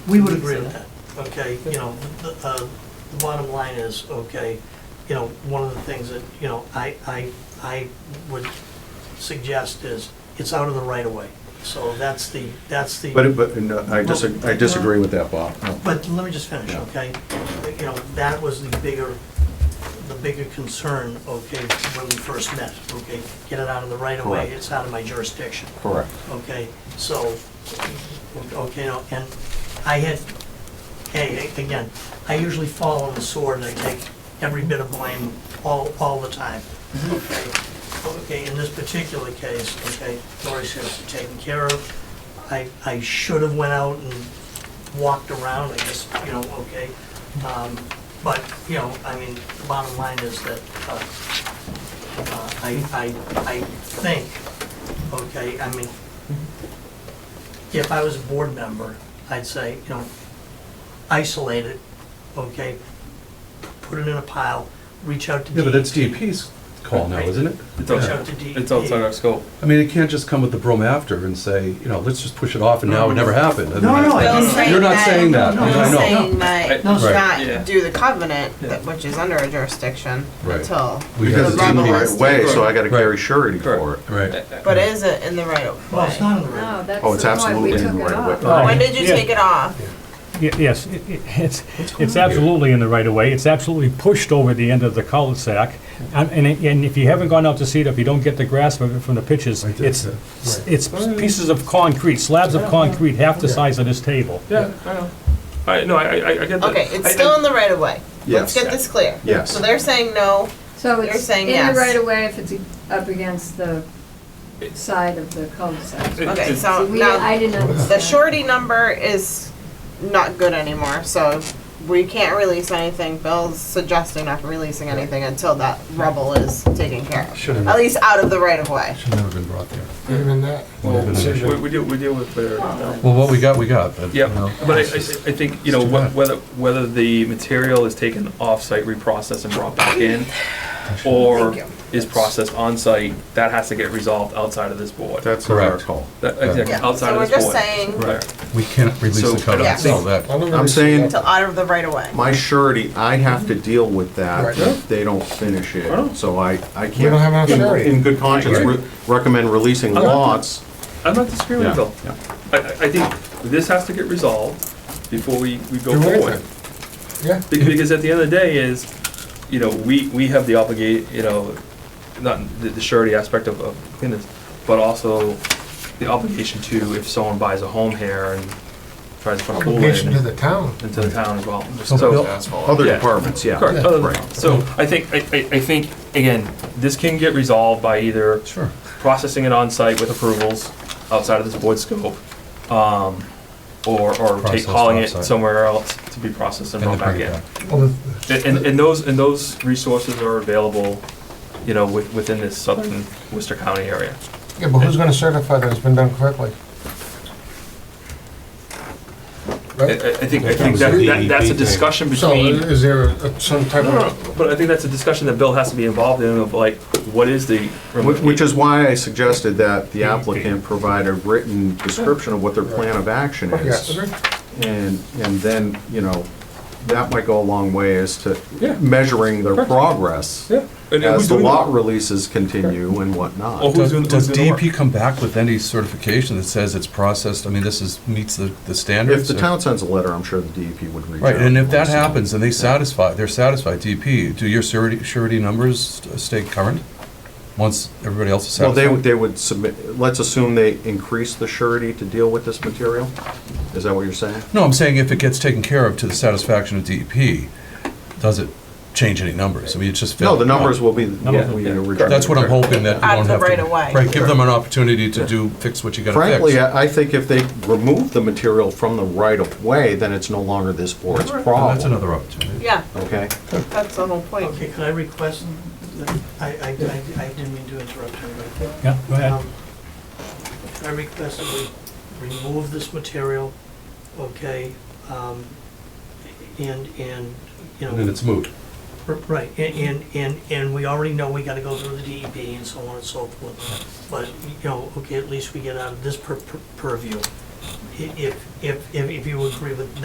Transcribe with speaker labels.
Speaker 1: We would agree with that, okay? You know, the, uh, the bottom line is, okay, you know, one of the things that, you know, I, I, I would suggest is, it's out of the right of way. So that's the, that's the.
Speaker 2: But, but, no, I disagree, I disagree with that, Bob. No.
Speaker 1: But let me just finish,
Speaker 2: Yeah.
Speaker 1: okay? You know, that was the bigger, the bigger concern, okay, when we first met, okay? Get it out of the right of way,
Speaker 2: Correct.
Speaker 1: it's out of my jurisdiction,
Speaker 2: Correct.
Speaker 1: okay? So, okay, no, and I had, hey, again, I usually fall on the sword and I take every bit of blame all, all the time, okay? Okay, in this particular case, okay, Lori's here, taken care of. I, I should have went out and walked around, I guess, you know, okay. Um, But, you know, I mean, the bottom line is that uh, uh, I, I, I think, okay, I mean, if I was a board member, I'd say, you know, isolate it, okay? Put it in a pile, reach out to E DEP.
Speaker 3: Yeah, but that's E DEP's call now, isn't it?
Speaker 4: It's
Speaker 1: Reach
Speaker 3: Yeah.
Speaker 1: out to DEP.
Speaker 4: It's outside our scope.
Speaker 3: I mean, it can't just come with the broom after and say, you know, let's just push it off and now it never happened. I
Speaker 2: No,
Speaker 3: mean,
Speaker 2: no, I-
Speaker 5: Bill's
Speaker 3: Oh, You're not saying that.
Speaker 5: Bill's
Speaker 3: I know.
Speaker 5: saying might
Speaker 1: No,
Speaker 3: sir.
Speaker 4: Yeah.
Speaker 5: not do the covenant,
Speaker 4: Yeah.
Speaker 5: that- which is under a jurisdiction,
Speaker 3: Right.
Speaker 5: until.
Speaker 3: We
Speaker 5: the
Speaker 2: Because it's in the
Speaker 5: rubble
Speaker 2: right
Speaker 5: is-
Speaker 2: way, so I gotta carry
Speaker 3: Right.
Speaker 2: surety for it.
Speaker 4: Correct.
Speaker 3: Right.
Speaker 5: But is it in the right of
Speaker 1: Well, it's
Speaker 5: way?
Speaker 1: not in the right.
Speaker 6: No, that's
Speaker 2: Oh, it's
Speaker 6: the point,
Speaker 2: absolutely
Speaker 6: we
Speaker 2: in the
Speaker 6: took it
Speaker 2: right way.
Speaker 6: off.
Speaker 1: Oh.
Speaker 5: When did you
Speaker 7: Yeah.
Speaker 5: take it off?
Speaker 7: Y- Yes, it- it- it's, it's absolutely in the right of way. It's absolutely pushed over the end of the cul-de-sac. And, and it- and if you haven't gone out to see it, if you don't get the grasp of it from the pictures,
Speaker 3: Right there,
Speaker 7: it's,
Speaker 3: yeah.
Speaker 7: s- it's pieces of concrete, slabs of concrete, half the size of this table.
Speaker 4: Yeah, I know. I, no, I, I, I get that.
Speaker 5: Okay, it's
Speaker 4: I- I-
Speaker 5: still in the right of way. Let's
Speaker 2: Yes.
Speaker 5: get this clear.
Speaker 2: Yes.
Speaker 5: So they're saying no,
Speaker 6: So
Speaker 5: You're
Speaker 6: it's
Speaker 5: saying
Speaker 6: in the
Speaker 5: yes.
Speaker 6: right of way if it's up against the
Speaker 4: It-
Speaker 6: side of the cul-de-sac.
Speaker 4: It's-
Speaker 5: okay,
Speaker 4: it's-
Speaker 6: See,
Speaker 5: so
Speaker 6: we, I
Speaker 5: now,
Speaker 6: didn't understand.
Speaker 5: the surety number is not good anymore, so we can't release anything. Bill's suggesting not releasing anything until that rubble is taken care of.
Speaker 3: Should've-
Speaker 5: At least out of the right of way.
Speaker 3: Should never have been brought there.
Speaker 8: Even that.
Speaker 4: Well,
Speaker 3: Wouldn't have been an
Speaker 4: we,
Speaker 3: issue.
Speaker 4: we deal, we deal with better now.
Speaker 3: Well, what we got, we got, but, you
Speaker 4: Yeah,
Speaker 3: know.
Speaker 4: but I, I, I think, you know,
Speaker 3: too
Speaker 4: wh-
Speaker 3: bad.
Speaker 4: whether, whether the material is taken off-site, reprocessed and brought back in, or
Speaker 5: Thank you.
Speaker 4: is processed on-site, that has to get resolved outside of this board.
Speaker 2: That's our
Speaker 3: Correct.
Speaker 2: call.
Speaker 4: That, exactly,
Speaker 5: Yeah,
Speaker 4: outside
Speaker 5: so
Speaker 4: of
Speaker 5: we're
Speaker 4: this board.
Speaker 5: just saying
Speaker 4: Right.
Speaker 3: We can't release
Speaker 4: So, I
Speaker 3: the
Speaker 4: don't
Speaker 3: covenant,
Speaker 5: think-
Speaker 3: so that.
Speaker 2: I'm saying-
Speaker 5: until out of the right of way.
Speaker 2: My surety, I have to deal with that
Speaker 8: Right.
Speaker 2: if they don't finish it,
Speaker 4: Right.
Speaker 2: so I, I can't.
Speaker 8: don't have enough
Speaker 2: in-
Speaker 8: surety.
Speaker 2: In good conscience,
Speaker 4: Right.
Speaker 2: re- recommend releasing
Speaker 4: I'm not-
Speaker 2: lots.
Speaker 4: I'm not disagreeing
Speaker 2: Yeah,
Speaker 4: with Bill. I, I I think this has to get resolved before we, we go
Speaker 8: Do
Speaker 4: forward.
Speaker 8: anything. Yeah.
Speaker 4: Be- Because at the end of the day is, you know, we, we have the obligate, you know, not the the surety aspect of, of cleanliness, but also the obligation to, if someone buys a home here and tries to put a pool in,
Speaker 8: Obligation to the
Speaker 4: into
Speaker 8: town.
Speaker 4: the town as well.
Speaker 3: So Bill-
Speaker 4: So,
Speaker 2: Other
Speaker 4: Yeah.
Speaker 2: departments, yeah.
Speaker 4: correct, other than-
Speaker 2: Right.
Speaker 4: so I think, I, I- I think, again, this can get resolved by either
Speaker 3: Sure.
Speaker 4: processing it on-site with approvals outside of this board scope, um, or, or take,
Speaker 3: Processed
Speaker 4: hauling it
Speaker 3: off-site.
Speaker 4: somewhere else to be processed and
Speaker 3: And then
Speaker 4: brought back
Speaker 3: bring
Speaker 4: in.
Speaker 3: it back.
Speaker 8: Well, the-
Speaker 4: And, and- and those, and those resources are available, you know, with- within this southern Worcester County area.
Speaker 8: Yeah, but who's gonna certify that it's been done correctly?
Speaker 4: I, I
Speaker 8: Right?
Speaker 4: I think, I think that, that- that's a discussion
Speaker 8: So
Speaker 4: Uh,
Speaker 8: uh,
Speaker 4: between,
Speaker 8: is there a- some type
Speaker 4: No, no, no,
Speaker 8: of,
Speaker 4: but I think that's a discussion that Bill has to be involved in of like, what is the.
Speaker 2: Which which is why I suggested that the applicant provide a written description of what their plan of action
Speaker 8: yes,
Speaker 2: is. And, and then, you know, that might go a long way as to
Speaker 4: Yeah.
Speaker 2: measuring their progress
Speaker 4: Yeah. And who's
Speaker 2: as the
Speaker 4: doing
Speaker 2: lot
Speaker 4: that? Oh,
Speaker 2: releases continue and
Speaker 4: Or
Speaker 2: whatnot.
Speaker 4: who's
Speaker 3: Does
Speaker 4: doing,
Speaker 3: does
Speaker 4: who's doing the
Speaker 3: DEP
Speaker 4: work?
Speaker 3: come back with any certification that says it's processed, I mean, this is, meets the, the
Speaker 2: If
Speaker 3: standards?
Speaker 2: the
Speaker 3: or-
Speaker 2: town sends a letter, I'm sure the DEP would reach out.
Speaker 3: Right, and if that
Speaker 2: So-
Speaker 3: happens and they satisfy, they're satisfied, DEP, do your surety, surety numbers stay current? Once everybody else is
Speaker 2: Well,
Speaker 3: satisfied?
Speaker 2: they would, they would submit, let's assume they increase the surety to deal with this material? Is that what you're saying?
Speaker 3: No, I'm saying if it gets taken care of to the satisfaction of DEP, does it change any numbers? I mean, it's just.
Speaker 2: No, the
Speaker 3: fail-
Speaker 2: numbers will be what we
Speaker 4: Yeah.
Speaker 2: originally.
Speaker 3: That's what I'm hoping that you
Speaker 5: Out
Speaker 3: don't
Speaker 5: of
Speaker 3: have to.
Speaker 5: the right of way.
Speaker 3: Right, give them an opportunity to do, fix what you gotta fix.
Speaker 2: Frankly, I I think if they remove the material from the right-of-way, then it's no longer this board's
Speaker 3: Well, That's
Speaker 2: problem,
Speaker 3: another opportunity.
Speaker 5: Yeah,
Speaker 2: okay?
Speaker 5: that's the whole point.
Speaker 1: Okay, could I request, that- I, I, I I didn't mean to interrupt everybody.
Speaker 7: Yeah, go ahead.
Speaker 1: Um, I request that we remove this material, okay, um, and, and, you
Speaker 3: And then
Speaker 1: know,
Speaker 3: it's moot.
Speaker 1: r- right, and, and, and and we already know we gotta go through the E DEP and so on and so forth, but, you know, okay, at least we get out of this pur- pur- purview, i- if, if, if if you agree with